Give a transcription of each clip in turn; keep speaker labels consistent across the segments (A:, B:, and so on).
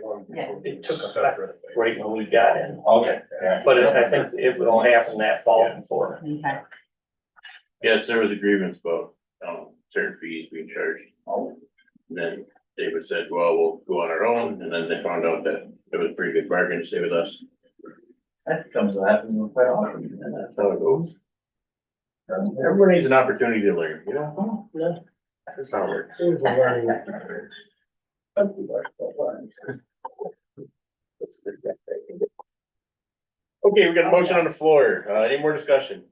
A: one.
B: Yeah.
C: it took effect right when we got in.
D: Okay, yeah.
C: But it- I think it will happen that fall and forth.
B: Okay,
E: Yes, there was a grievance about, um, certain fees being charged. And Then David said, well, we'll go on our own, and then they found out that it was a pretty good bargain to stay with us.
D: That comes to happen quite often.
E: And that's how it goes. Everyone needs an opportunity to learn, you know?
C: Yeah.
E: That's how it works. Okay, we got a motion on the floor. Uh, any more discussion?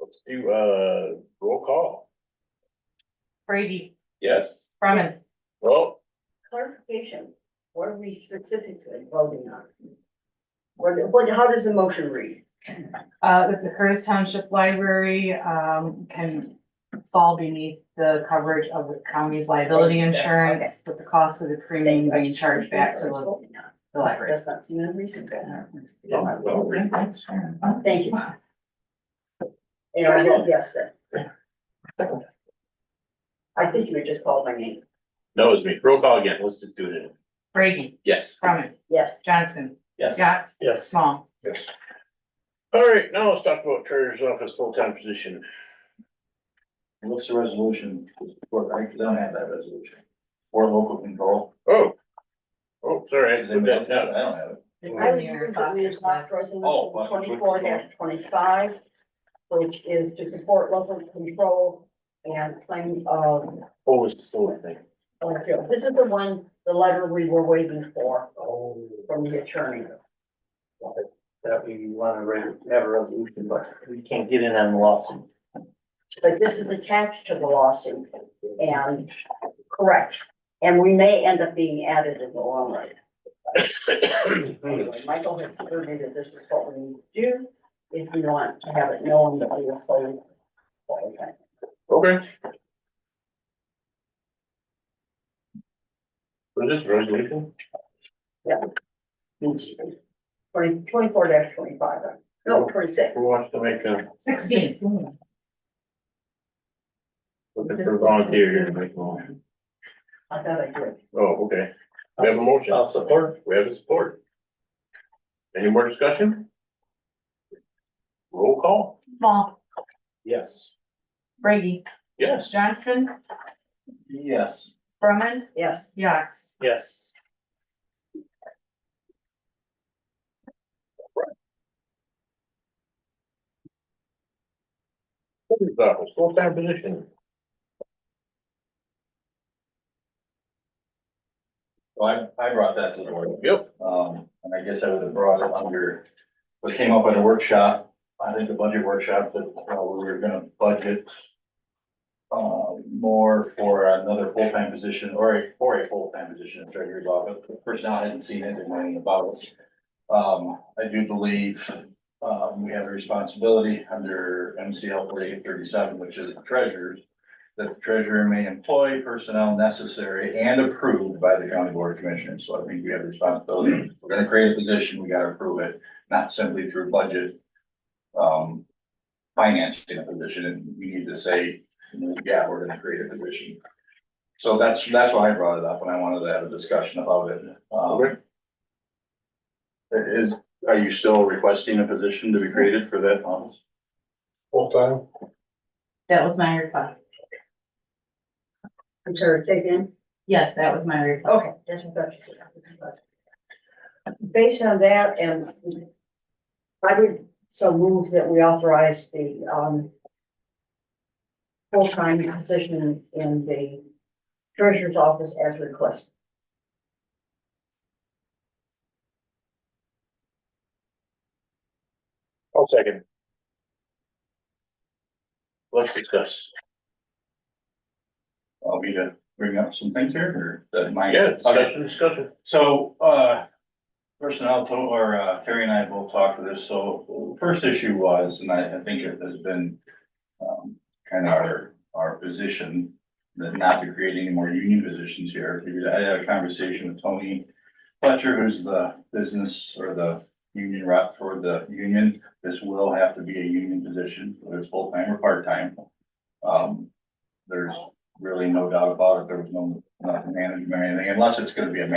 E: Let's do, uh, roll call.
B: Brady,
E: Yes.
B: Brumman,
E: Well,
F: Clarification, what are we specifically voting on? What, what, how does the motion read?
B: uh, that the Curtis Township Library, um, can fall beneath the coverage of the county's liability insurance, with the cost of the premium being charged back to the- the library.
F: Does not seem unreasonable.
B: All
F: Thank you. And I vote yes then. I think you had just called my name.
E: that was me. Roll call again. Let's just do it. in-
B: Brady,
E: Yes.
B: Brumman,
F: Yes,
B: Johnson,
E: Yes.
B: Yax,
C: Yes.
B: Small.
E: All right, now let's talk about treasurer's office full-time position.
D: What's the resolution for, I don't have that resolution. For local control.
E: Oh. Oh, sorry, I
D: I
E: put
D: don't
E: that down.
D: have it.
F: I was looking for the draft
D: Oh,
F: resolution
D: Foster.
F: twenty-four twenty-five, which is to support local control and claim uh, of
E: Oh, was the solar thing.
F: Oh, yeah. This is the one, the letter we were waiting for from the attorney.
C: That we wanna re- have a resolution, but we can't get in on the lawsuit.
F: But this is attached to the lawsuit and correct. And we may end up being added in the long run. Anyway, Michael has asserted that this is what we need to do if we want to have it known that we are playing.
E: Okay. Was this resolution?
F: Twenty, twenty-four twenty-five, no, twenty-six.
E: Who wants to make a,
B: Sixteen.
E: looking for a volunteer here to make one?
F: I thought I did.
E: Oh, okay. We have a motion.
C: I'll support.
E: We have a Uh, support. Any more discussion? Roll call?
B: Small,
E: Yes.
B: Brady,
E: Yes.
B: Johnson,
D: Yes.
B: Brumman,
F: Yes,
B: Yax.
C: Yes.
E: Treasurer's office, full-time position.
D: So I, I brought that to the board.
E: Yep.
D: Um, and I guess I would have brought it under, what came up at a workshop, I think the budget workshop that, uh, we were gonna budget. Uh, more for another full-time position or a, for a full-time position in treasurer's office, first now I hadn't seen anything about it. Um, I do believe, um, we have a responsibility under MCL forty-eight thirty-seven, which is treasurers. That the treasurer may employ personnel necessary and approved by the county board of commissioners, so I think we have a responsibility. If We're gonna create a position, we gotta approve it, not simply through budget. Um, financing a position, and we need to say, yeah, we're gonna create a position. So that's, that's why I brought it up, and I wanted to have a discussion about it. Um, Is, are you still requesting a position to be created for that office?
A: Full-time,
B: That was my request.
F: I'm sorry, say again.
B: Yes, that was my request.
F: Okay, that's what I thought you said. Based on that, and I would so move that we authorize the, um, full-time position in the treasurer's office as requested.
E: I'll second. Let's discuss.
D: I'll be to bring up some things here, or that my.
E: Yeah, discussion, discussion.
D: So, uh, personnel, to- or, uh, Terry and I both talked to this, so first issue was, and I, I think it has been. Um, kind of our, our position, that not to create any more union positions here, I had a conversation with Tony. Fletcher, who's the business or the union rep for the union, this will have to be a union position, whether it's full-time or part-time. Um, there's really no doubt about it, there was no, nothing management or anything, unless it's gonna be a